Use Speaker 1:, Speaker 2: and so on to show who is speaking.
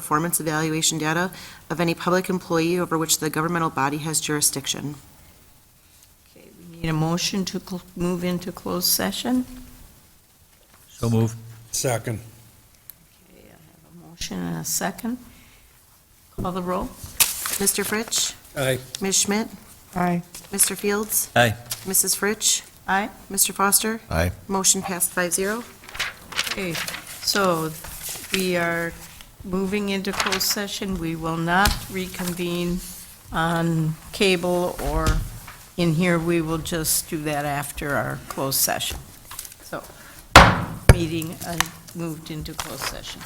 Speaker 1: performance evaluation data of any public employee over which the governmental body has jurisdiction.
Speaker 2: Okay, we need a motion to cl- move into closed session.
Speaker 3: So move.
Speaker 4: Second.
Speaker 2: Okay, I have a motion and a second. Call the roll.
Speaker 1: Mr. Fritsch?
Speaker 4: Aye.
Speaker 1: Ms. Schmidt?
Speaker 2: Aye.
Speaker 1: Mr. Fields?
Speaker 3: Aye.
Speaker 1: Mrs. Fritsch?
Speaker 2: Aye.
Speaker 1: Mr. Foster?
Speaker 3: Aye.
Speaker 1: Motion passed five zero.
Speaker 2: Okay, so we are moving into closed session. We will not reconvene on cable or in here. We will just do that after our closed session. So, meeting uh, moved into closed session.